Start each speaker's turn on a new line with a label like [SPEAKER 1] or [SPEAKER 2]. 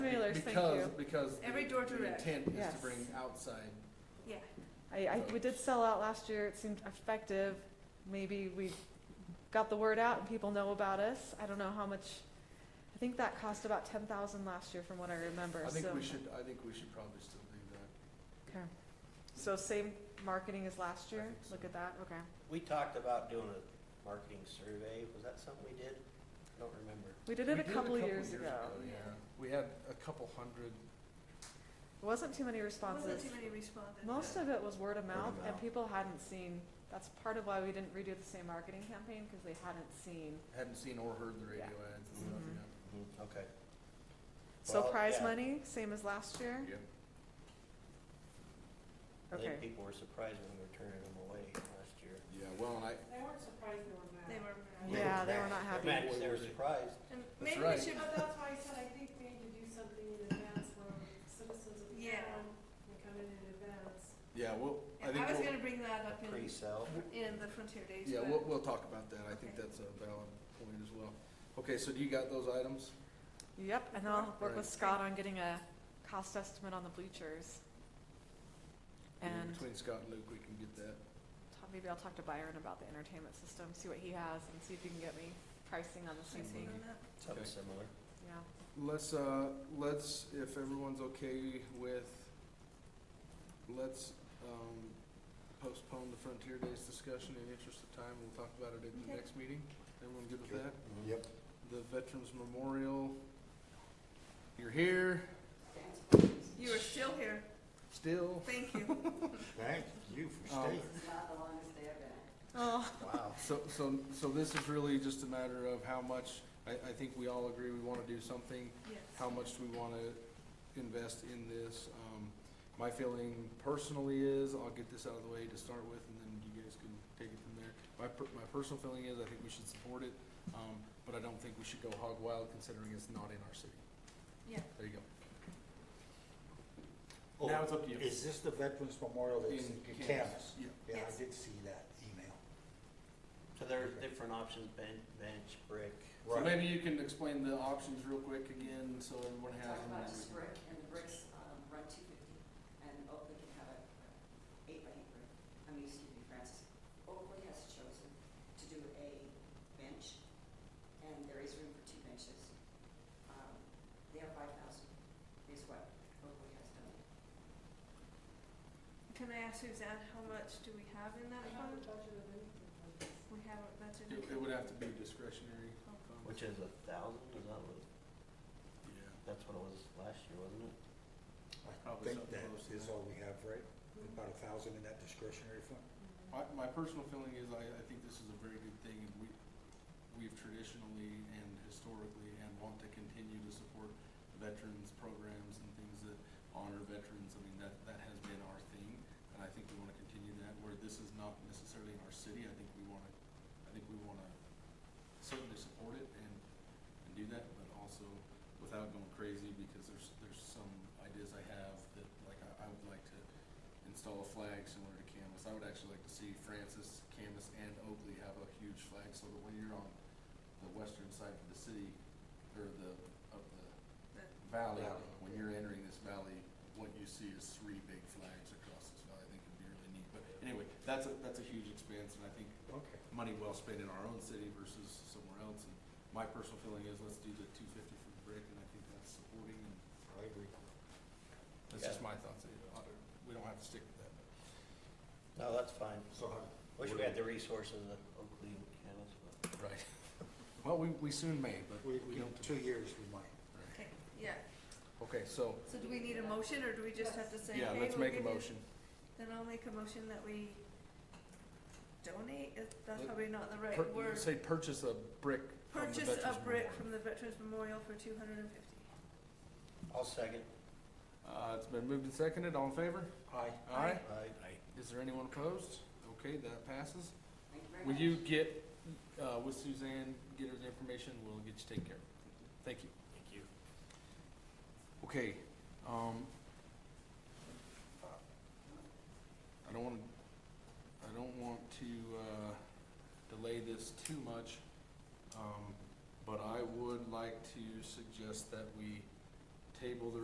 [SPEAKER 1] others, thank
[SPEAKER 2] Because,
[SPEAKER 1] you.
[SPEAKER 2] because
[SPEAKER 3] Every door
[SPEAKER 2] the
[SPEAKER 3] to rec.
[SPEAKER 2] intent is to
[SPEAKER 1] Yes.
[SPEAKER 2] bring outside,
[SPEAKER 3] Yeah,
[SPEAKER 1] I, I, we did sell out last year, it seemed effective, maybe we got the word out and people know about us, I don't know how much, I think that cost about ten thousand last year from what I remember,
[SPEAKER 2] I
[SPEAKER 1] so.
[SPEAKER 2] think we should, I think we should probably still leave that.
[SPEAKER 1] Okay. So same marketing as last
[SPEAKER 2] I
[SPEAKER 1] year,
[SPEAKER 2] think so.
[SPEAKER 1] look at that, okay.
[SPEAKER 4] We talked about doing a marketing survey, was that something we did? I don't remember.
[SPEAKER 1] We did it
[SPEAKER 2] We
[SPEAKER 1] a couple years ago,
[SPEAKER 2] Yeah, we had a couple hundred,
[SPEAKER 1] It wasn't too many
[SPEAKER 3] wasn't
[SPEAKER 1] responses.
[SPEAKER 3] too many respondents.
[SPEAKER 1] Most of it was word of mouth, and
[SPEAKER 4] mouth.
[SPEAKER 1] people hadn't seen, that's part of why we didn't redo the same marketing campaign, because they hadn't seen.
[SPEAKER 2] hadn't seen or heard the radio
[SPEAKER 1] Yeah.
[SPEAKER 2] ads and stuff,
[SPEAKER 1] Mhm.
[SPEAKER 2] yeah.
[SPEAKER 4] Okay.
[SPEAKER 1] So
[SPEAKER 4] Well,
[SPEAKER 1] prize
[SPEAKER 4] yeah.
[SPEAKER 1] money, same as last year?
[SPEAKER 2] yeah.
[SPEAKER 4] I
[SPEAKER 1] Okay.
[SPEAKER 4] think people were surprised when we were turning them away last year.
[SPEAKER 2] Yeah, well, and I,
[SPEAKER 5] They weren't surprised they were mad.
[SPEAKER 3] They were.
[SPEAKER 1] Yeah, they were not
[SPEAKER 4] They're
[SPEAKER 1] happy.
[SPEAKER 4] mad 'cause they were surprised.
[SPEAKER 3] And
[SPEAKER 2] That's
[SPEAKER 3] maybe we
[SPEAKER 2] right.
[SPEAKER 3] should,
[SPEAKER 5] But that's why I said I think we need to do something in advance where citizens of the
[SPEAKER 3] Yeah.
[SPEAKER 5] town can come in in advance.
[SPEAKER 2] yeah, well,
[SPEAKER 3] and
[SPEAKER 2] I think,
[SPEAKER 3] I was
[SPEAKER 2] we'll-
[SPEAKER 3] gonna bring that up in,
[SPEAKER 4] Pre-sell.
[SPEAKER 3] in the Frontier Days,
[SPEAKER 2] yeah,
[SPEAKER 3] but-
[SPEAKER 2] we'll, we'll talk about that, I think
[SPEAKER 3] Okay.
[SPEAKER 2] that's a valid point as well. Okay, so do you got those items?
[SPEAKER 1] Yep, and I'll work
[SPEAKER 2] Right.
[SPEAKER 1] with Scott on getting a cost estimate on the bleachers. And
[SPEAKER 2] Between Scott and Luke, we can get that.
[SPEAKER 1] ta- maybe I'll talk to Byron about the entertainment system, see what he has, and see if he can get me pricing on the
[SPEAKER 3] Can
[SPEAKER 1] same
[SPEAKER 3] I see
[SPEAKER 1] thing,
[SPEAKER 3] on that?
[SPEAKER 4] Something
[SPEAKER 2] Okay.
[SPEAKER 4] similar.
[SPEAKER 1] yeah.
[SPEAKER 2] Let's, uh, let's, if everyone's okay with, let's, um, postpone the Frontier Days discussion in interest of time, we'll talk about it at the
[SPEAKER 3] Okay.
[SPEAKER 2] next meeting. Everyone good with
[SPEAKER 4] Sure.
[SPEAKER 2] that?
[SPEAKER 4] Mhm.
[SPEAKER 6] Mm-hmm. Yep.
[SPEAKER 2] The Veterans Memorial, you're here,
[SPEAKER 3] You are still here,
[SPEAKER 2] still,
[SPEAKER 3] thank you.
[SPEAKER 6] Thank you for
[SPEAKER 2] Um,
[SPEAKER 6] staying.
[SPEAKER 1] Oh,
[SPEAKER 4] Wow.
[SPEAKER 2] so, so, so this is really just a matter of how much, I, I think we all agree we wanna do something.
[SPEAKER 3] Yes.
[SPEAKER 2] how much do we want to invest in this? Um, My feeling personally is, I'll get this out of the way to start with, and then you guys can take it from there. My, per- my personal feeling is, I think we should support it, um, but I don't think we should go hog wild considering it's not in our city.
[SPEAKER 3] Yeah.
[SPEAKER 2] There you go.
[SPEAKER 6] Oh,
[SPEAKER 2] Now it's up to you.
[SPEAKER 6] Is this the Veterans Memorial that's in
[SPEAKER 2] In Camas,
[SPEAKER 6] Camas?
[SPEAKER 2] yeah.
[SPEAKER 6] Yeah,
[SPEAKER 3] Yes.
[SPEAKER 6] I did see that email.
[SPEAKER 4] So there are different options, bench, bench, brick.
[SPEAKER 2] So
[SPEAKER 6] Right.
[SPEAKER 2] maybe you can explain the options real quick again, so everyone has
[SPEAKER 7] Talk
[SPEAKER 2] them.
[SPEAKER 7] about just brick, and the bricks, um, run two fifty, and Oakley can have a eight by eight brick. I mean, excuse me, Francis, Oakley has chosen to do a bench, and there is room for two benches. Um, they are five thousand, is what Oakley has done.
[SPEAKER 3] Can I ask Suzanne, how much do we have in that
[SPEAKER 5] I
[SPEAKER 3] fund?
[SPEAKER 5] haven't budgeted anything for this.
[SPEAKER 3] We haven't budgeted.
[SPEAKER 2] It it would have to be discretionary.
[SPEAKER 3] Oh.
[SPEAKER 2] um,
[SPEAKER 4] Which is a thousand, is that what,
[SPEAKER 2] Yeah,
[SPEAKER 4] that's what it was last year, wasn't it?
[SPEAKER 6] I
[SPEAKER 2] Probably
[SPEAKER 6] think
[SPEAKER 2] something
[SPEAKER 6] that
[SPEAKER 2] close to
[SPEAKER 6] is
[SPEAKER 2] that.
[SPEAKER 6] all we have, right? About a thousand in that discretionary fund?
[SPEAKER 2] My, my personal feeling is I, I think this is a very good thing and we, we've traditionally and historically and want to continue to support veterans programs and things that honor veterans. I mean, that, that has been our thing and I think we wanna continue that where this is not necessarily in our city. I think we wanna, I think we wanna certainly support it and, and do that, but also without going crazy because there's, there's some ideas I have that like I, I would like to install a flag similar to Camus. I would actually like to see Francis, Camus, and Oakley have a huge flag so that when you're on the western side of the city, or the, of the
[SPEAKER 3] The-
[SPEAKER 2] valley,
[SPEAKER 6] Valley.
[SPEAKER 2] when you're entering this valley, what you see is three big flags across this valley. I think it'd be really neat. But anyway, that's a, that's a huge expense and I think
[SPEAKER 6] Okay.
[SPEAKER 2] money well spent in our own city versus somewhere else. And my personal feeling is let's do the two fifty for the brick and I think that's supporting and
[SPEAKER 6] I agree.
[SPEAKER 2] that's just my thoughts. We don't have to stick with that.
[SPEAKER 4] No, that's fine.
[SPEAKER 6] So,
[SPEAKER 4] Wish we had the resources that Oakley and Camas, but
[SPEAKER 2] Right. Well, we, we soon may, but
[SPEAKER 6] we,
[SPEAKER 2] we
[SPEAKER 6] we,
[SPEAKER 2] don't.
[SPEAKER 6] two years we might.
[SPEAKER 3] Okay, yeah,
[SPEAKER 2] Okay, so,
[SPEAKER 3] so do we need a motion, or do we just have to say, hey,
[SPEAKER 2] yeah, let's
[SPEAKER 3] we'll
[SPEAKER 2] make a
[SPEAKER 3] give you-
[SPEAKER 2] motion.
[SPEAKER 3] Then I'll make a motion that we donate, if that's
[SPEAKER 2] Let-
[SPEAKER 3] probably not the
[SPEAKER 2] Pur-
[SPEAKER 3] right word.
[SPEAKER 2] Say purchase a brick from the
[SPEAKER 3] Purchase
[SPEAKER 2] Veterans
[SPEAKER 3] a brick
[SPEAKER 2] Memorial.
[SPEAKER 3] from the Veterans Memorial for two hundred and fifty.
[SPEAKER 4] I'll second.
[SPEAKER 2] Uh, it's been moved and seconded, all in favor?
[SPEAKER 6] Aye.
[SPEAKER 2] Aye.
[SPEAKER 4] Aye.
[SPEAKER 2] Is there anyone opposed? Okay, that passes.
[SPEAKER 7] Thank you very
[SPEAKER 2] Will
[SPEAKER 7] much.
[SPEAKER 2] you get, uh, with Suzanne, get her the information, we'll get you taken care of. Thank you. Thank you. Okay, um, I don't wanna, I don't want to, uh, delay this too much, um, but I would like to suggest that we table the